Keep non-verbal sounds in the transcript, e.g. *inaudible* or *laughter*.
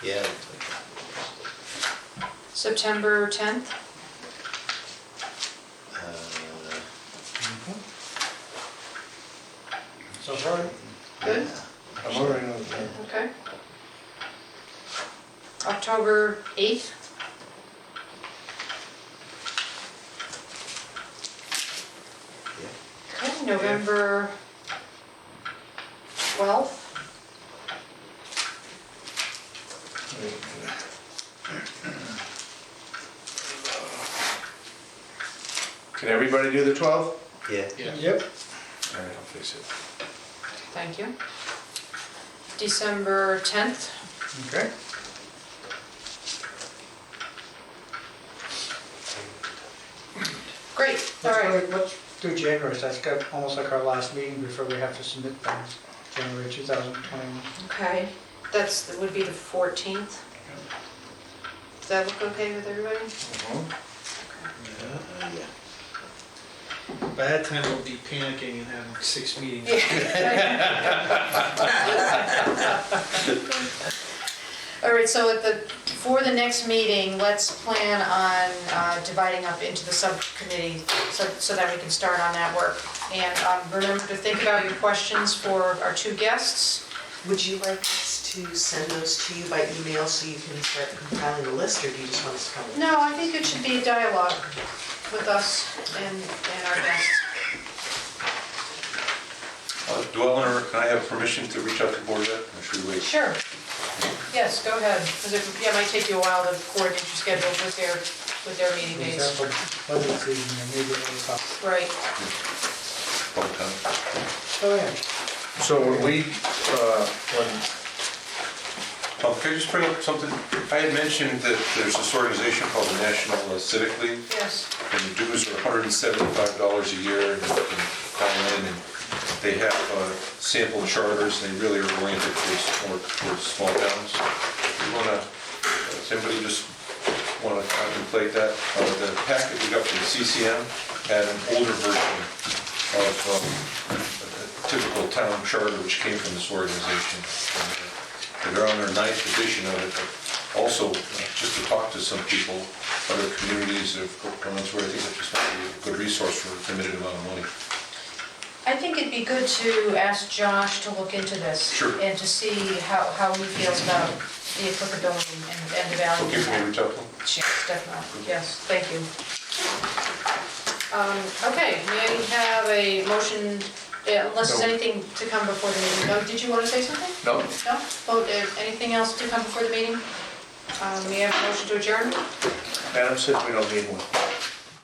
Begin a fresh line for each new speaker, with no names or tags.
September tenth?
Uh,
So sorry,
Good.
I'm already on the,
Okay. October eighth? Okay, November twelfth?
Can everybody do the 12th?
Yeah,
yep,
All right, I'll fix it.
Thank you. December tenth?
okay.
Great, all
Let's
right.
go- Let's do January, so that's got- almost like our last meeting before we have to submit things, January 2021.
Okay, that's, that would be the fourteenth. Does that look okay with everybody?
Uh-huh. By that time, we'll be panicking and having six meetings. *laughs*
All right, so at the, for the next meeting, let's plan on uh, dividing up into the subcommittee so, so that we can start on that work. And um, remember to think about your questions for our two guests.
Would you like us to send those to you by email so you can start compiling a list, or do you just want us to come? in?
No, I think it should be a dialogue with us and, and our guests.
Uh, do I want to, can I have permission to reach out to board rep, or should we wait?
Sure. Yes, go ahead, because it, yeah, it might take you a while to coordinate your schedule with their, with their meeting
For
days.
example, budget season, and maybe it'll pop.
Right.
Public comment?
Oh, yeah.
So when we, uh, when
Um, Can I just bring up something? I had mentioned that there's this organization called the National uh, Civic League,
Yes.
and the dues are $175 a year, and you can call in, and they have uh, sample charters, and they really are oriented towards, more towards small towns. You wanna, does anybody just wanna contemplate that? Uh, The packet we got from CCM had an older version of um, a typical town charter, which came from this organization. And, uh, They're on their ninth edition of it, but also, uh, just to talk to some people, other communities of Brunswick, I think that this might be a good resource for a limited amount of money.
I think it'd be good to ask Josh to look into this.
Sure.
And to see how, how he feels about the applicability and, and the value.
Okay, for me to reach out to them?
Yes, definitely, yes, thank you. Um, okay, may I have a motion, yeah, unless there's
No.
anything to come before the meeting, No, did you want to say something?
No.
No? Oh, there, anything else to come before the meeting? Um, may I have a motion to adjourn?
Adam said we don't need one.